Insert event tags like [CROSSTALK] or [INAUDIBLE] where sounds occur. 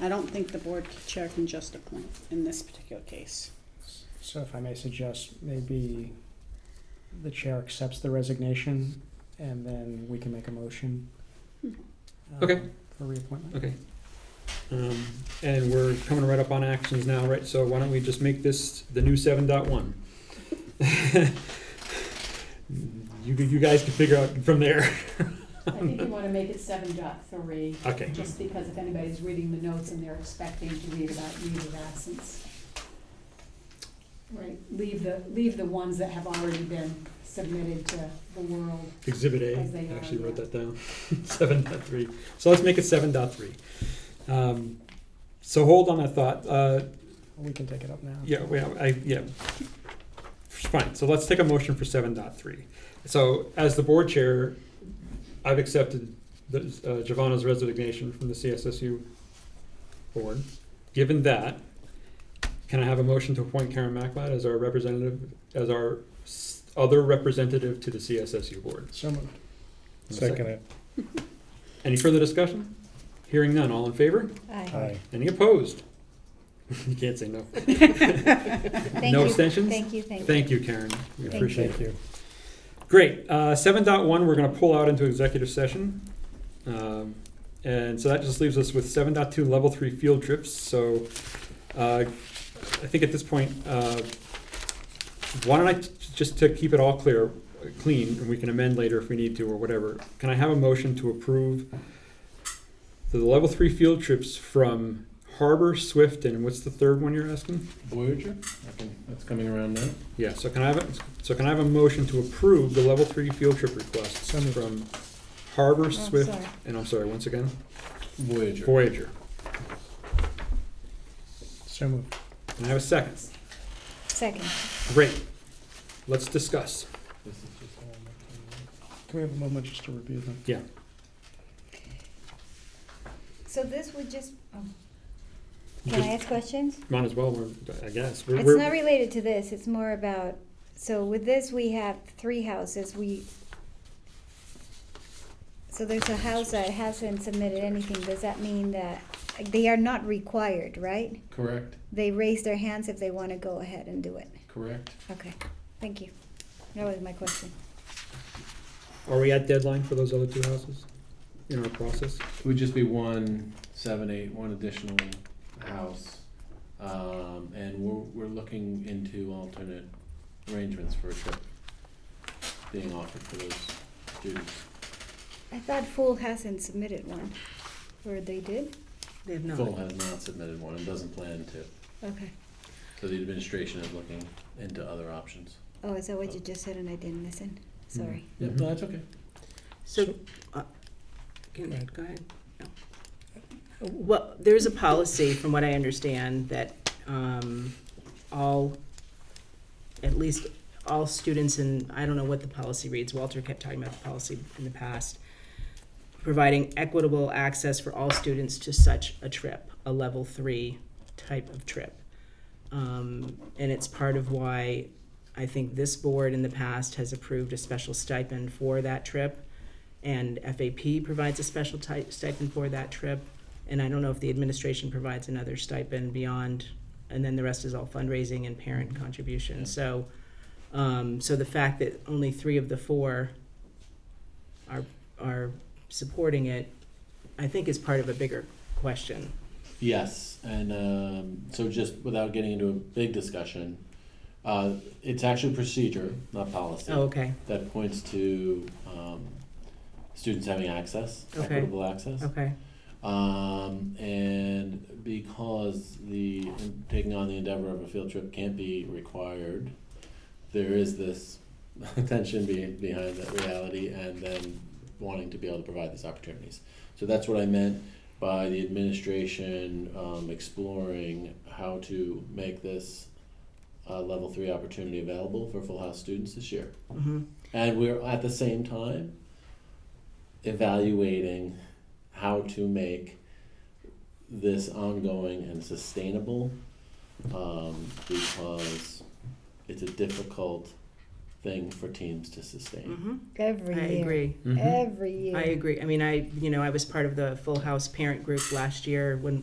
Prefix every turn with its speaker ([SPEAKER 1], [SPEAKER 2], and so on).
[SPEAKER 1] I don't think the board chair can just appoint in this particular case.
[SPEAKER 2] So if I may suggest, maybe the chair accepts the resignation and then we can make a motion. um,
[SPEAKER 3] Okay.
[SPEAKER 2] For reappointment.
[SPEAKER 3] Okay. Um, and we're coming right up on actions now, right? So why don't we just make this the new seven dot one? [LAUGHS] You, you guys can figure out from there.
[SPEAKER 4] I think you wanna make it seven dot three,
[SPEAKER 3] Okay,
[SPEAKER 4] just because if anybody's reading the notes and they're expecting to read about leave of absence. Right, leave the, leave the ones that have already been submitted to the world.
[SPEAKER 3] exhibit A,
[SPEAKER 4] As they
[SPEAKER 3] I actually
[SPEAKER 4] are,
[SPEAKER 3] wrote
[SPEAKER 4] yeah.
[SPEAKER 3] that down, [LAUGHS] seven dot three. So let's make it seven dot three. Um, so hold on that thought, uh,
[SPEAKER 2] We can take it up now.
[SPEAKER 3] Yeah, we, I, yeah. Fine, so let's take a motion for seven dot three. So as the board chair, I've accepted the, uh, Giovanna's resignation from the CSSU board. Given that, can I have a motion to appoint Karen Maclad as our representative, as our s- other representative to the CSSU board?
[SPEAKER 2] So moved.
[SPEAKER 5] Second it.
[SPEAKER 3] Any further discussion? Hearing none, all in favor?
[SPEAKER 5] Aye.
[SPEAKER 3] Any opposed? [LAUGHS] You can't say no.
[SPEAKER 6] [LAUGHS] Thank
[SPEAKER 3] No
[SPEAKER 6] you.
[SPEAKER 3] extensions?
[SPEAKER 6] Thank you, thank you.
[SPEAKER 3] Thank you, Karen. We
[SPEAKER 6] Thank
[SPEAKER 3] appreciate it.
[SPEAKER 5] Thank you.
[SPEAKER 3] Great. Uh, 7.1, we're going to pull out into executive session. Um, and so that just leaves us with 7.2 level three field trips. So uh, I think at this point, uh, why don't I, t- just to keep it all clear, clean, and we can amend later if we need to or whatever, can I have a motion to approve the level three field trips from Harbor, Swift, and what's the third one you're asking?
[SPEAKER 5] Voyager, I think that's coming around now.
[SPEAKER 3] Yeah, so can I have, a- so can I have a motion to approve the level three field trip requests
[SPEAKER 2] So moved.
[SPEAKER 3] from Harbor,
[SPEAKER 6] Oh,
[SPEAKER 3] Swift,
[SPEAKER 6] sorry.
[SPEAKER 3] and I'm sorry, once again,
[SPEAKER 5] Voyager.
[SPEAKER 3] Voyager?
[SPEAKER 2] So moved.
[SPEAKER 3] Can I have a second?
[SPEAKER 6] Second.
[SPEAKER 3] Great. Let's discuss.
[SPEAKER 5] This is just all I'm
[SPEAKER 2] Can we have a moment just to review them?
[SPEAKER 6] So this would just, oh,
[SPEAKER 3] You
[SPEAKER 6] can I
[SPEAKER 3] just-
[SPEAKER 6] ask questions?
[SPEAKER 3] Might as well, we're- I guess. We're-
[SPEAKER 6] It's
[SPEAKER 3] we're-
[SPEAKER 6] not related to this, it's more about, so with this, we have three houses, we, so there's a house that hasn't submitted anything, does that mean that, they are not required, right?
[SPEAKER 5] Correct,
[SPEAKER 6] They raise their hands if they wanna go ahead and do it.
[SPEAKER 5] correct.
[SPEAKER 6] Okay, thank you. That was my question.
[SPEAKER 3] Are we at deadline for those other two houses in our process?
[SPEAKER 5] It would just be one seven eight, one additional house. Um, and we're, we're looking into alternate arrangements for a trip being offered for those students.
[SPEAKER 6] I thought Fool hasn't submitted one, or they did?
[SPEAKER 1] They have
[SPEAKER 5] Full has not submitted one and doesn't plan to,
[SPEAKER 6] Okay.
[SPEAKER 5] so the administration is looking into other options.
[SPEAKER 6] Oh, is that what you just said and I didn't listen?
[SPEAKER 3] Hmm.
[SPEAKER 6] Sorry.
[SPEAKER 5] Yep, no, that's okay.
[SPEAKER 2] So-
[SPEAKER 7] So, uh,
[SPEAKER 2] Go
[SPEAKER 7] can,
[SPEAKER 2] ahead.
[SPEAKER 7] go ahead. No. Well, there's a policy, from what I understand, that, um, all, at least all students in, I don't know what the policy reads, Walter kept talking about the policy in the past, providing equitable access for all students to such a trip, a level three type of trip. Um, and it's part of why I think this board in the past has approved a special stipend for that trip and FAP provides a special ti- stipend for that trip. And I don't know if the administration provides another stipend beyond, and then the rest is all fundraising and parent contribution. So, um, so the fact that only three of the four are are supporting it, I think, is part of a bigger question.
[SPEAKER 5] Yes, and um, so just without getting into a big discussion, uh, it's actually procedure, not policy,
[SPEAKER 7] Oh, okay,
[SPEAKER 5] that points to um, students having access,
[SPEAKER 7] Okay.
[SPEAKER 5] equitable access.
[SPEAKER 7] okay,
[SPEAKER 5] Um, and because the taking on the endeavor of a field trip can't be required, there is this [LAUGHS] tension be, behind that reality and then wanting to be able to provide these opportunities. So that's what I meant by the administration um, exploring how to make this uh, level three opportunity available for Full House students this year.
[SPEAKER 7] hmm
[SPEAKER 5] And we're at the same time evaluating how to make this ongoing and sustainable um, because it's a difficult thing for teams to sustain.
[SPEAKER 7] hmm I
[SPEAKER 6] every year.
[SPEAKER 7] agree.
[SPEAKER 6] Mm-hmm.
[SPEAKER 3] Mhm.
[SPEAKER 6] Every year.
[SPEAKER 7] I agree. I mean, I, you know, I was part of the Full House parent group last year when